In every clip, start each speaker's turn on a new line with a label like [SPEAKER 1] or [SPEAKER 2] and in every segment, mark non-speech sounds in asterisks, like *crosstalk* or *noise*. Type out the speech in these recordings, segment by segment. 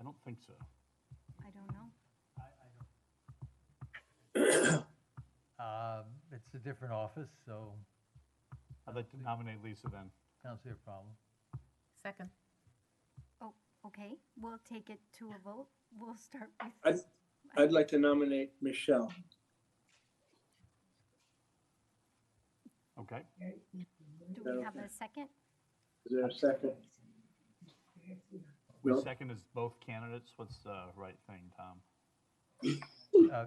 [SPEAKER 1] I don't think so.
[SPEAKER 2] I don't know.
[SPEAKER 3] I, I don't. *coughs* Um, It's a different office, so
[SPEAKER 1] I'd like to nominate Lisa then.
[SPEAKER 3] I don't see a
[SPEAKER 2] *laughs*
[SPEAKER 3] problem.
[SPEAKER 4] Second.
[SPEAKER 2] Oh, okay, we'll take it to a vote. We'll start
[SPEAKER 5] I'd,
[SPEAKER 2] with,
[SPEAKER 5] I'd like to nominate Michelle.
[SPEAKER 1] Okay,
[SPEAKER 2] do we have a second?
[SPEAKER 5] Is there a second?
[SPEAKER 1] we
[SPEAKER 5] No.
[SPEAKER 1] second is both candidates. What's the right thing, Tom?
[SPEAKER 3] Uh,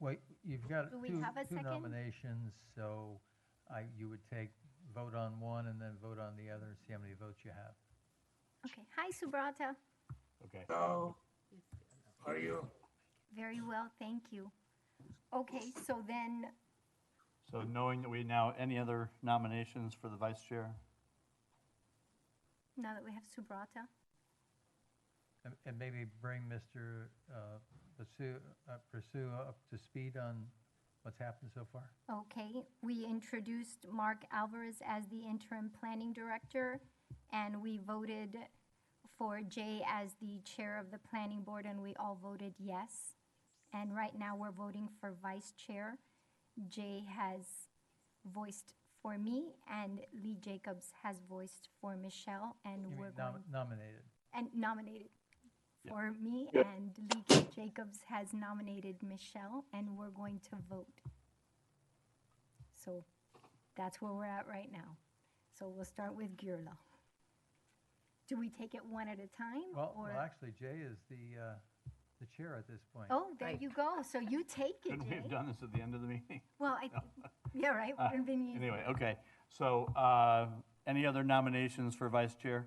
[SPEAKER 3] Wait, you've got
[SPEAKER 2] Do we
[SPEAKER 3] two
[SPEAKER 2] have a
[SPEAKER 3] two
[SPEAKER 2] second?
[SPEAKER 3] nominations, so I, you would take, vote on one and then vote on the other and see how many votes you have.
[SPEAKER 2] Okay, hi Subrata.
[SPEAKER 1] Okay,
[SPEAKER 6] Hello. How are you?
[SPEAKER 2] Very well, thank you. Okay, so then,
[SPEAKER 1] so knowing that we now, any other nominations for the vice chair?
[SPEAKER 2] now that we have Subrata,
[SPEAKER 3] And- And maybe bring Mr. uh, Pursue uh, Pursue up to speed on what's happened so far.
[SPEAKER 2] okay, we introduced Mark Alvarez as the interim planning director, and we voted for Jay as the chair of the planning board, and we all voted yes. And right now, we're voting for vice chair. Jay has voiced for me, and Lee Jacobs has voiced for Michelle, and
[SPEAKER 3] You mean
[SPEAKER 2] we're
[SPEAKER 3] nom-
[SPEAKER 2] going
[SPEAKER 3] Nominated.
[SPEAKER 2] and nominated for me,
[SPEAKER 5] Yeah.
[SPEAKER 2] and Lee Jacobs has nominated Michelle, and we're going to vote. So that's where we're at right now. So we'll start with Girla. Do we take it one at a time?
[SPEAKER 3] Well, well,
[SPEAKER 2] or
[SPEAKER 3] actually, Jay is the, uh, the chair at this point.
[SPEAKER 2] Oh, there
[SPEAKER 4] Right.
[SPEAKER 2] you go. So you take it,
[SPEAKER 1] Couldn't we have
[SPEAKER 2] Jay.
[SPEAKER 1] done this at the end of the meeting? *laughs*
[SPEAKER 2] Well, I, *laughs* yeah, right.
[SPEAKER 1] Uh,
[SPEAKER 2] wouldn't been easy.
[SPEAKER 1] Anyway, okay, so, uh, any other nominations for vice chair?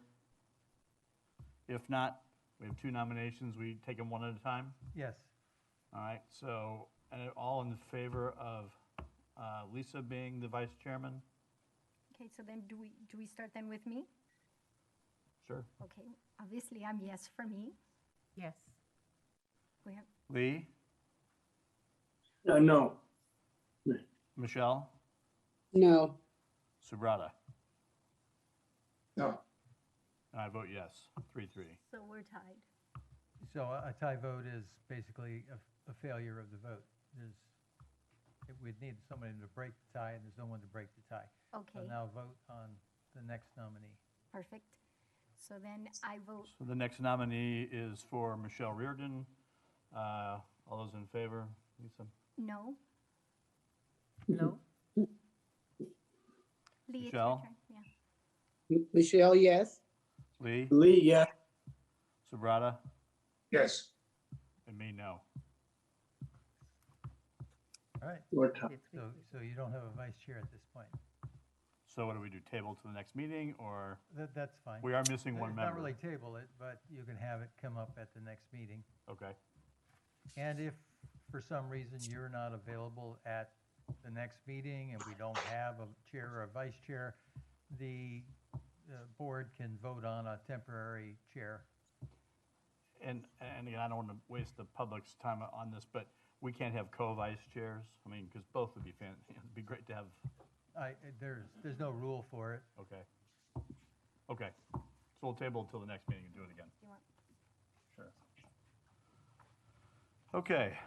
[SPEAKER 1] If not, we have two nominations, we take them one at a time?
[SPEAKER 3] Yes,
[SPEAKER 1] All right, so, and all in favor of uh, Lisa being the vice chairman?
[SPEAKER 2] Okay, so then do we, do we start then with me?
[SPEAKER 1] Sure.
[SPEAKER 2] Okay, obviously I'm yes for me.
[SPEAKER 4] Yes.
[SPEAKER 2] We have,
[SPEAKER 1] Lee,
[SPEAKER 5] Uh, no,
[SPEAKER 1] Michelle,
[SPEAKER 7] No,
[SPEAKER 1] Subrata?
[SPEAKER 5] No.
[SPEAKER 1] And I vote yes, three, three.
[SPEAKER 2] so we're tied.
[SPEAKER 3] so a a tie vote is basically a f- a failure of the vote. There's, it- we'd need somebody to break the tie, and there's no one to break the tie. So
[SPEAKER 2] Okay,
[SPEAKER 3] now vote on the next nominee.
[SPEAKER 2] perfect. So then I vote
[SPEAKER 1] So the next nominee is for Michelle Reardon. Uh, All those in favor, Lisa?
[SPEAKER 2] No.
[SPEAKER 4] No?
[SPEAKER 2] Lee, it's your
[SPEAKER 1] Michelle?
[SPEAKER 2] turn. Yeah.
[SPEAKER 7] M- Michelle, yes.
[SPEAKER 1] Lee,
[SPEAKER 5] Lee, yeah,
[SPEAKER 1] Subrata,
[SPEAKER 6] Yes.
[SPEAKER 1] and me, no.
[SPEAKER 3] All right,
[SPEAKER 5] or Tom.
[SPEAKER 4] It's
[SPEAKER 3] so, so you don't have a vice chair at this point.
[SPEAKER 1] So what do we do, table to the next meeting, or
[SPEAKER 3] That, that's fine.
[SPEAKER 1] we are missing
[SPEAKER 3] It's
[SPEAKER 1] one
[SPEAKER 3] Not
[SPEAKER 1] member?
[SPEAKER 3] really table it, but you can have it come up at the next meeting.
[SPEAKER 1] Okay,
[SPEAKER 3] And if for some reason you're not available at the next meeting and we don't have a chair or a vice chair, the uh, board can vote on a temporary chair.
[SPEAKER 1] and, and again, I don't want to waste the public's time on this, but we can't have co-vice chairs? I mean, because both would be fan, *laughs* it'd be great to have,
[SPEAKER 3] I, there's, there's no rule for it.
[SPEAKER 1] okay. Okay, so we'll table till the next meeting and do it again.
[SPEAKER 2] You want-
[SPEAKER 1] Sure. Okay,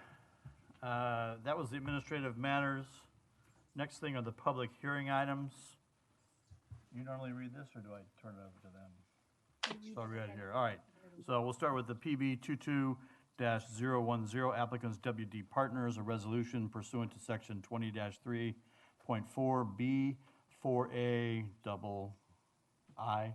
[SPEAKER 1] uh, that was the administrative matters. Next thing are the public hearing items. You normally read this, or do I turn it over to them?
[SPEAKER 2] you read
[SPEAKER 1] So
[SPEAKER 2] it
[SPEAKER 1] I'll read it
[SPEAKER 2] again.
[SPEAKER 1] here, all right. So we'll start with the PB 22 010 applicants WD Partners, a resolution pursuant to section 20 3.4B 4A double I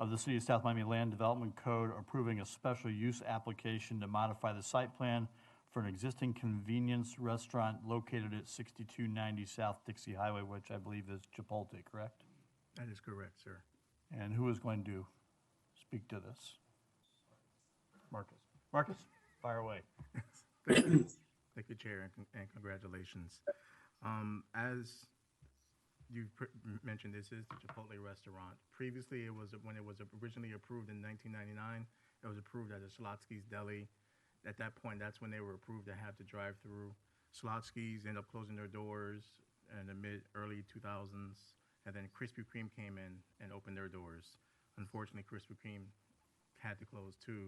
[SPEAKER 1] of the City of South Miami Land Development Code approving a special use application to modify the site plan for an existing convenience restaurant located at 6290 South Dixie Highway, which I believe is Chipotle, correct?
[SPEAKER 8] That is correct, sir.
[SPEAKER 1] And who is going to speak to this? Marcus. Marcus, fire away.
[SPEAKER 8] Thank you, Thank you, Chair, and con- and congratulations. Um, As you pr- m- mentioned, this is the Chipotle restaurant. Previously, it was, when it was originally approved in 1999, it was approved as a Slotsky's Deli. At that point, that's when they were approved to have the drive-through. Slotsky's ended up closing their doors in the mid, early 2000s, and then Krispy Kreme came in and opened their doors. Unfortunately, Krispy Kreme had to close too,